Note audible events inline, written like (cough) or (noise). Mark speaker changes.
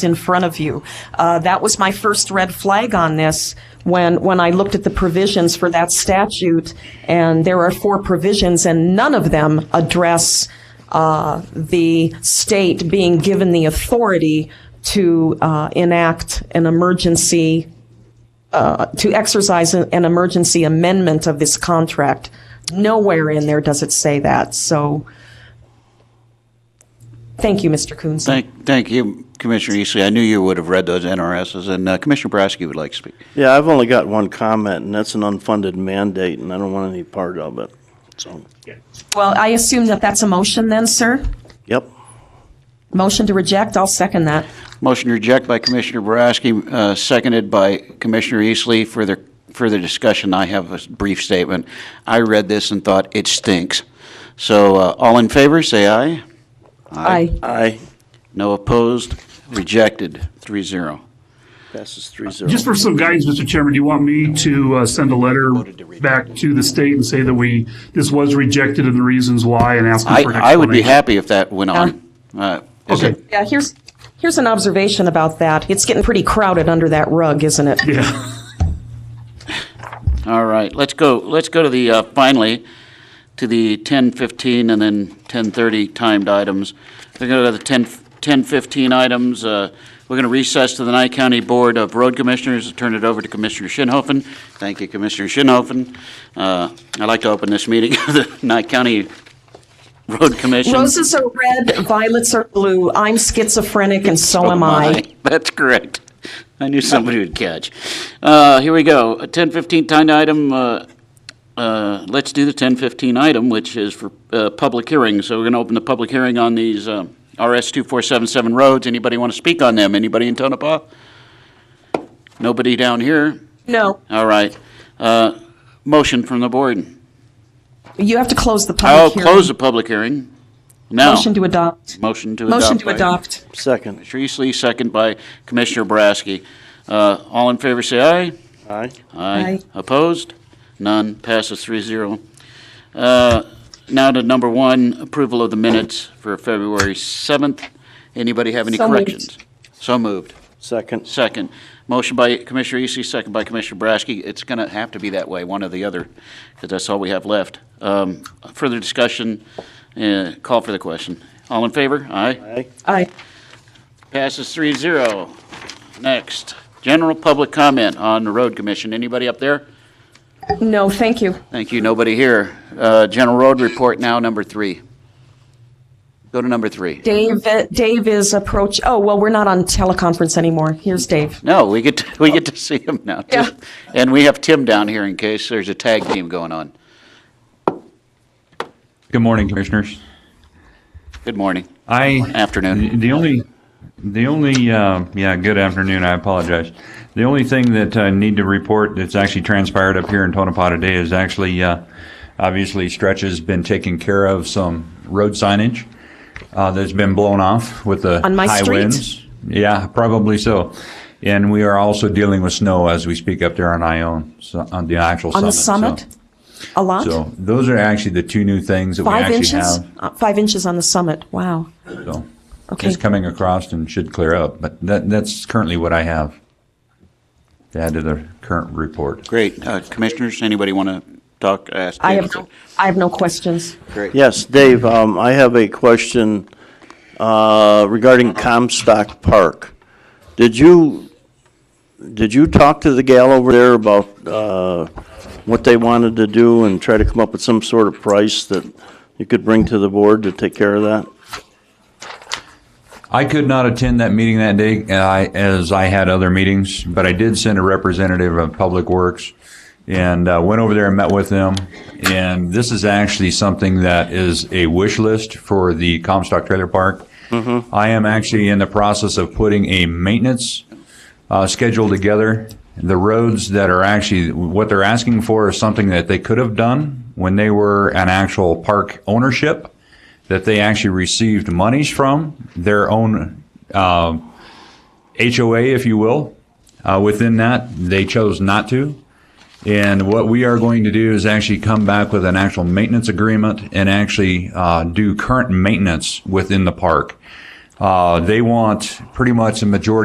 Speaker 1: in front of you. Uh, that was my first red flag on this when when I looked at the provisions for that statute, and there are four provisions, and none of them address uh, the state being given the authority to uh, enact an emergency uh, to exercise an, an emergency amendment of this contract. Nowhere in there does it say that. So, thank you, Mr. Coons.
Speaker 2: Thank, thank you, Commissioner Eastley. I knew you would have read those NRSs, and uh, Commissioner Boraski would like to speak.
Speaker 3: Yeah, I've only got one comment, and that's an unfunded mandate, and I don't want any part of it. So,
Speaker 1: Well, I assume that that's a motion then, sir?
Speaker 3: yep.
Speaker 1: Motion to reject, I'll second that.
Speaker 2: Motion to reject by Commissioner Boraski, uh, seconded by Commissioner Eastley. Further, further discussion, I have a s- brief statement. I read this and thought, it stinks. So uh, all in favor, say aye.
Speaker 1: Aye.
Speaker 3: Aye.
Speaker 2: No opposed, rejected, 3-0.
Speaker 3: Passes three zero.
Speaker 4: Just for some guidance, Mr. Chairman, do you want me to uh, send a letter back to the state and say that we, this was rejected and the reasons why and ask them
Speaker 2: I,
Speaker 4: for an
Speaker 2: I would be
Speaker 4: explanation?
Speaker 2: happy if that went on. Uh, is
Speaker 4: Okay.
Speaker 2: it-
Speaker 1: Yeah, here's, here's an observation about that. It's getting pretty crowded under that rug, isn't it?
Speaker 4: Yeah.
Speaker 2: All right, let's go, let's go to the, uh, finally, to the 10:15 and then 10:30 timed items. We're going to go to the 10 10:15 items. Uh, We're going to recess to the Nye County Board of Road Commissioners and turn it over to Commissioner Shinhofen. Thank you, Commissioner Shinhofen. Uh, I'd like to open this meeting of the (laughs) Nye County Road Commission.
Speaker 1: Roses are red, violets are blue. I'm schizophrenic and so
Speaker 2: Oh,
Speaker 1: am
Speaker 2: my. (laughs)
Speaker 1: I.
Speaker 2: That's correct. I knew somebody would catch. Uh, here we go. A 10:15 time item. Uh, uh, let's do the 10:15 item, which is for uh, public hearing. So we're going to open the public hearing on these um, RS 2477 roads. Anybody want to speak on them? Anybody in Tonopah? Nobody down here.
Speaker 1: No,
Speaker 2: All right. Uh, motion from the board.
Speaker 1: you have to close the
Speaker 2: I'll
Speaker 1: public hearing.
Speaker 2: close the public hearing. Now.
Speaker 1: Motion to adopt.
Speaker 2: Motion to adopt.
Speaker 1: Motion to
Speaker 2: by-
Speaker 1: adopt.
Speaker 3: Second.
Speaker 2: Commissioner Eastley, second by Commissioner Boraski. Uh, All in favor, say aye.
Speaker 3: Aye.
Speaker 1: Aye.
Speaker 2: Opposed? None. Passes 3-0. Uh, Now to number one, approval of the minutes for February 7th. Anybody have any
Speaker 1: So moved.
Speaker 2: corrections? So moved.
Speaker 3: Second.
Speaker 2: Second. Motion by Commissioner Eastley, second by Commissioner Boraski. It's going to have to be that way, one or the other, because that's all we have left. Um, Further discussion, uh, call for the question. All in favor? Aye.
Speaker 3: Aye.
Speaker 1: Aye.
Speaker 2: Passes 3-0. Next, general public comment on the road commission. Anybody up there?
Speaker 1: No, thank you.
Speaker 2: Thank you, nobody here. Uh, General road report now, number three. Go to number three.
Speaker 1: Dave, Dave is approach, oh, well, we're not on teleconference anymore. Here's Dave.
Speaker 2: No, we get, to- we get to see him now, too.
Speaker 1: Yeah.
Speaker 2: And we have Tim down here in case there's a tag team going on.
Speaker 5: Good morning, commissioners.
Speaker 2: Good morning,
Speaker 5: I,
Speaker 2: afternoon.
Speaker 5: the only, the only, uh, yeah, good afternoon, I apologize. The only thing that I need to report that's actually transpired up here in Tonopah today is actually, uh, obviously Stretch has been taking care of some road signage uh, that's been blown off with the
Speaker 1: On my
Speaker 5: high
Speaker 1: street?
Speaker 5: winds. Yeah, probably so. And we are also dealing with snow as we speak up there on Ione, so- on the actual
Speaker 1: On the
Speaker 5: summit. so-
Speaker 1: summit? A lot?
Speaker 5: So those are actually the two new things that we
Speaker 1: Five
Speaker 5: actually
Speaker 1: inches?
Speaker 5: have.
Speaker 1: Uh, Five inches on the summit, wow.
Speaker 5: So
Speaker 1: Okay.
Speaker 5: it's coming across and should clear up, but that, that's currently what I have to add to the current report.
Speaker 2: Great. Uh, Commissioners, anybody want to talk, ask?
Speaker 1: I have, no- I have no questions.
Speaker 2: Great.
Speaker 3: Yes, Dave, um, I have a question, uh, regarding Comstock Park. Did you, did you talk to the gal over there about, uh, what they wanted to do and try to come up with some sort of price that you could bring to the board to take care of that?
Speaker 5: I could not attend that meeting that day, uh, I- as I had other meetings, but I did send a representative of Public Works and uh, went over there and met with them. And this is actually something that is a wish list for the Comstock Trailer Park. I am actually in the process of putting a maintenance uh, schedule together. The roads that are actually, what they're asking for is something that they could have done when they were an actual park ownership, that they actually received monies from, their own um, HOA, if you will. Uh, Within that, they chose not to. And what we are going to do is actually come back with an actual maintenance agreement and actually uh, do current maintenance within the park. Uh, They want pretty much a majority